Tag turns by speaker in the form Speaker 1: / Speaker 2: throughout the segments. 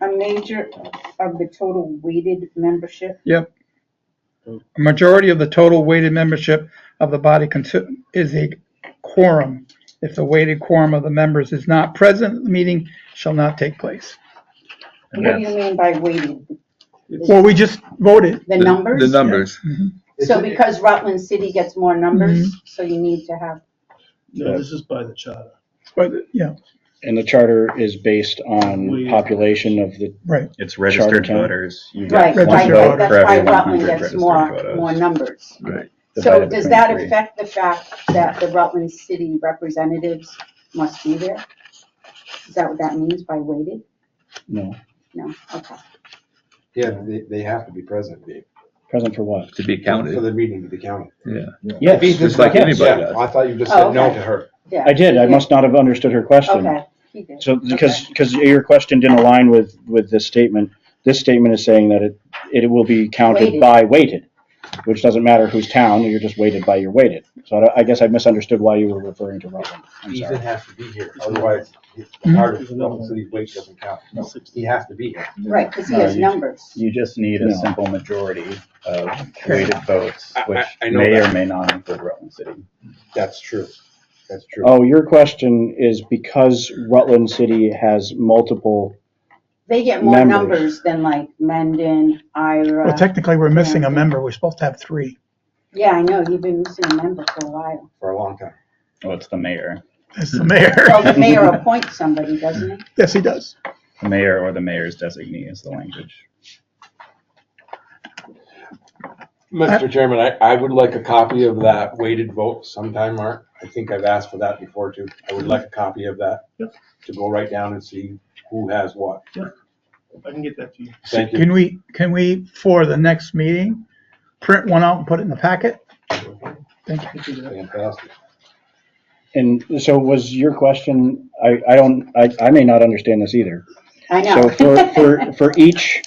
Speaker 1: a major of the total weighted membership?
Speaker 2: Yep. A majority of the total weighted membership of the body consi- is a quorum. If the weighted quorum of the members is not present, the meeting shall not take place.
Speaker 3: And
Speaker 1: What do you
Speaker 3: that's-
Speaker 1: mean by weighted?
Speaker 2: Well, we just voted.
Speaker 1: The
Speaker 3: the-
Speaker 1: numbers?
Speaker 3: The numbers.
Speaker 1: So because Rutland City gets more numbers,
Speaker 4: Mm-hmm.
Speaker 1: so you need to have,
Speaker 5: No, this is by the charter.
Speaker 2: But, yeah,
Speaker 4: And the charter is based on
Speaker 5: We-
Speaker 4: population of the,
Speaker 2: right.
Speaker 3: Mm-hmm. It's registered
Speaker 4: Charter.
Speaker 3: voters. You
Speaker 1: right,
Speaker 3: get
Speaker 2: Registered
Speaker 1: right,
Speaker 3: one vote
Speaker 1: right,
Speaker 3: for
Speaker 1: that's why
Speaker 3: every one
Speaker 1: Rutland
Speaker 3: hundred
Speaker 1: gets
Speaker 3: registered
Speaker 1: more, more
Speaker 3: voters.
Speaker 1: numbers.
Speaker 3: Right.
Speaker 1: So
Speaker 3: Divided
Speaker 1: does that
Speaker 3: between three.
Speaker 1: affect the fact that the Rutland City representatives must be there? Is that what that means by weighted?
Speaker 4: no,
Speaker 1: No, okay.
Speaker 6: Yeah, but they, they have to be present, Dave,
Speaker 4: present for what?
Speaker 3: To be
Speaker 6: for
Speaker 3: counted,
Speaker 6: the meeting to be counted.
Speaker 3: yeah.
Speaker 4: Yes,
Speaker 3: Just like
Speaker 4: yes.
Speaker 3: anybody
Speaker 6: Yeah,
Speaker 3: does.
Speaker 6: I thought you just
Speaker 1: Oh,
Speaker 6: said no
Speaker 1: okay.
Speaker 6: to her.
Speaker 1: Yeah.
Speaker 4: I did, I
Speaker 1: Yeah.
Speaker 4: must not have understood her question.
Speaker 1: Okay, he did.
Speaker 4: So, because, because your question didn't align with, with this statement. This statement is saying that it, it will be counted
Speaker 1: Weighted.
Speaker 4: by weighted, which doesn't matter whose town, you're just weighted by your weighted. So I don't- I guess I misunderstood why you were referring to Rutland. I'm sorry.
Speaker 6: Ethan has to be here, otherwise, it's the hardest,
Speaker 5: Mhm.
Speaker 6: the city's weight doesn't count. He has to be here.
Speaker 1: Right, because he
Speaker 4: No,
Speaker 1: has
Speaker 4: uh, you-
Speaker 1: numbers.
Speaker 3: You just need a
Speaker 4: No.
Speaker 3: simple majority of weighted votes,
Speaker 6: I- I-
Speaker 3: which
Speaker 6: I know
Speaker 3: may or
Speaker 6: that.
Speaker 3: may not include Rutland City.
Speaker 6: That's true, that's true.
Speaker 4: Oh, your question is because Rutland City has multiple,
Speaker 1: They get more
Speaker 4: Numbers.
Speaker 1: numbers than like Mendon,
Speaker 2: Well,
Speaker 1: Ira.
Speaker 2: technically, we're missing a member. We're supposed to have three.
Speaker 1: Yeah, I know, you've been missing a member for a while.
Speaker 6: For a long time.
Speaker 3: Well, it's the mayor,
Speaker 2: That's the mayor.
Speaker 1: Well, the mayor appoints somebody, doesn't he?
Speaker 2: Yes, he does.
Speaker 3: the mayor or the mayor's designee is the language.
Speaker 6: Mr. Chairman, I, I would like a copy of that weighted vote sometime, Mark. I think I've asked for that before too. I would like a copy of that.
Speaker 5: Yep.
Speaker 6: To go right down and see who has what.
Speaker 5: I can get that to you.
Speaker 6: Thank you.
Speaker 2: Can we, can we, for the next meeting, print one out and put it in the packet? Thank you.
Speaker 6: Fantastic.
Speaker 4: and so was your question, I, I don't, I, I may not understand this either.
Speaker 1: I know.
Speaker 4: So for, for, for each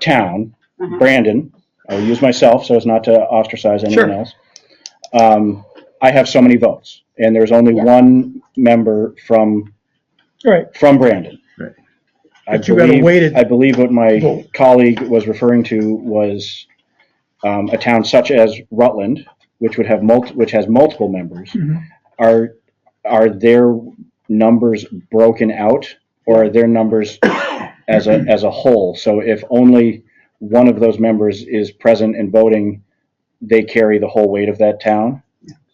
Speaker 4: town,
Speaker 1: Uh-huh.
Speaker 4: Brandon, I'll use myself so as not to ostracize anyone
Speaker 2: Sure.
Speaker 4: else. Um, I have so many votes and there's only
Speaker 1: Yeah.
Speaker 4: one member from,
Speaker 2: All right,
Speaker 4: from Brandon.
Speaker 3: Right.
Speaker 4: I
Speaker 2: But you got a
Speaker 4: believe-
Speaker 2: weighted
Speaker 4: I believe what my
Speaker 2: vote.
Speaker 4: colleague was referring to was, um, a town such as Rutland, which would have multi, which has multiple members.
Speaker 7: Mm-hmm.
Speaker 2: Mhm.
Speaker 4: Are, are their numbers broken out or are their numbers as a, as a whole? So if only one of those members is present and voting, they carry the whole weight of that town?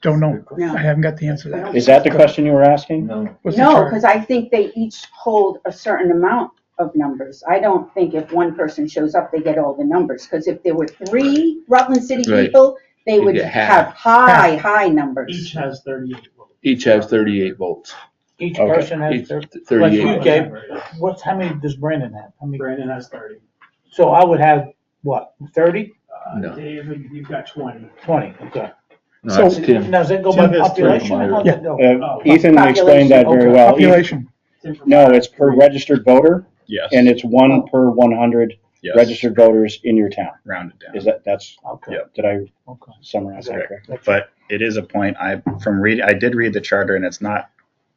Speaker 2: don't know.
Speaker 1: No.
Speaker 2: I haven't got the answer to that.
Speaker 4: Is that the question you were asking?
Speaker 2: What's the
Speaker 1: No,
Speaker 2: charge?
Speaker 1: because I think they each hold a certain amount of numbers. I don't think if one person shows up, they get all the numbers, because if there were three Rutland City
Speaker 8: Right.
Speaker 1: people, they would
Speaker 8: get half.
Speaker 1: have high, high numbers.
Speaker 5: Each has thirty-eight votes.
Speaker 8: Each has thirty-eight votes.
Speaker 7: Each
Speaker 4: Okay.
Speaker 7: person
Speaker 8: Each
Speaker 7: has their,
Speaker 8: thirty-eight.
Speaker 7: Okay. what's, how many does Brandon have? How many,
Speaker 5: Brandon has thirty.
Speaker 7: so I would have, what, thirty,
Speaker 5: Uh,
Speaker 8: No.
Speaker 5: David, you've got twenty.
Speaker 7: twenty, okay.
Speaker 8: No,
Speaker 2: So-
Speaker 8: that's Tim.
Speaker 7: Now, does that go by
Speaker 5: Tim has three.
Speaker 7: population or how's
Speaker 2: Yeah.
Speaker 7: it go?
Speaker 4: Uh, Ethan explained that very
Speaker 7: Population, okay.
Speaker 4: well. Ethan-
Speaker 2: Population.
Speaker 5: Tim from-
Speaker 4: No, it's per registered voter
Speaker 3: Yes.
Speaker 4: and it's one per one hundred
Speaker 3: yes,
Speaker 4: registered voters in your town.
Speaker 3: Rounded down.
Speaker 4: Is that, that's,
Speaker 7: Okay,
Speaker 3: Yeah.
Speaker 4: did I
Speaker 7: okay.
Speaker 4: summarize that
Speaker 3: Correct.
Speaker 4: correctly?
Speaker 3: But it is a point I, from read, I did read the charter and it's not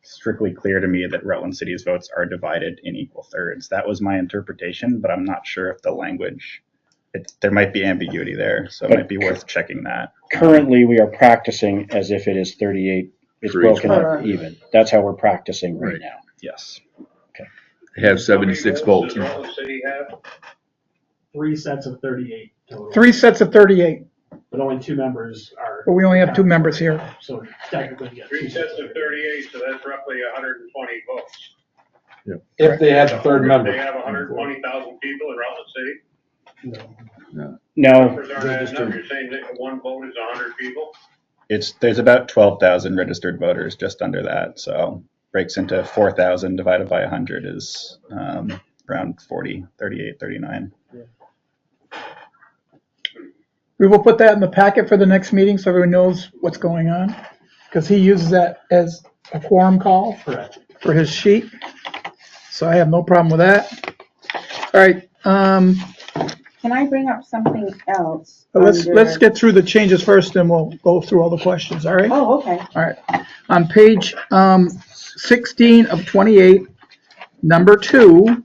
Speaker 3: strictly clear to me that Rutland City's votes are divided in equal thirds. That was my interpretation, but I'm not sure if the language, it, there might be ambiguity there, so it might be worth checking that.
Speaker 4: Currently, we are practicing as if it is thirty-eight, it's
Speaker 8: For each
Speaker 4: broken up
Speaker 1: one.
Speaker 4: even. That's how we're practicing right
Speaker 8: Right.
Speaker 4: now.
Speaker 3: Yes.
Speaker 8: They have seventy-six votes.
Speaker 5: Three sets of thirty-eight total.
Speaker 2: Three sets of 38,
Speaker 5: But only two members are.
Speaker 2: but we only have two members here.
Speaker 5: So technically, you got two
Speaker 9: Three sets of
Speaker 5: 38.
Speaker 9: thirty-eight, so that's roughly hundred and twenty votes.
Speaker 6: If they had the third member.
Speaker 9: They have hundred and twenty thousand people in Rutland City.
Speaker 6: Oh,
Speaker 4: No,
Speaker 9: Numbers aren't adding up. You're saying that one vote is hundred people?
Speaker 3: It's, there's about twelve thousand registered voters, just under that, so breaks into four thousand divided by hundred is, um, around 40, 38, 39.
Speaker 2: We will put that in the packet for the next meeting so everyone knows what's going on. Because he uses that as a quorum call
Speaker 5: Correct.
Speaker 2: for his sheet. So I have no problem with that. All right, um,
Speaker 1: Can I bring up something else?
Speaker 2: but let's,
Speaker 1: under-
Speaker 2: let's get through the changes first and we'll go through all the questions, all right?
Speaker 1: Oh, okay.
Speaker 2: All right, on page um, 16 of 28, number two,